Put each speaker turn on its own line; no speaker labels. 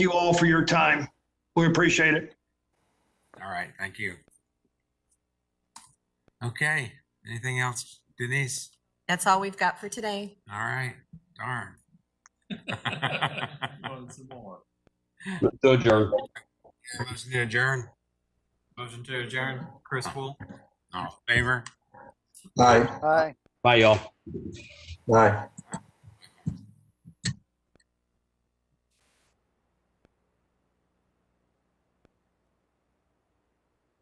you all for your time. We appreciate it.
All right, thank you. Okay, anything else, Denise?
That's all we've got for today.
All right, darn.
Want some more?
So adjourned.
Motion to adjourn, Uh,
Motion to adjourn, Chris Wool.
all in favor?
Aye.
Aye.
Bye, y'all.
Aye.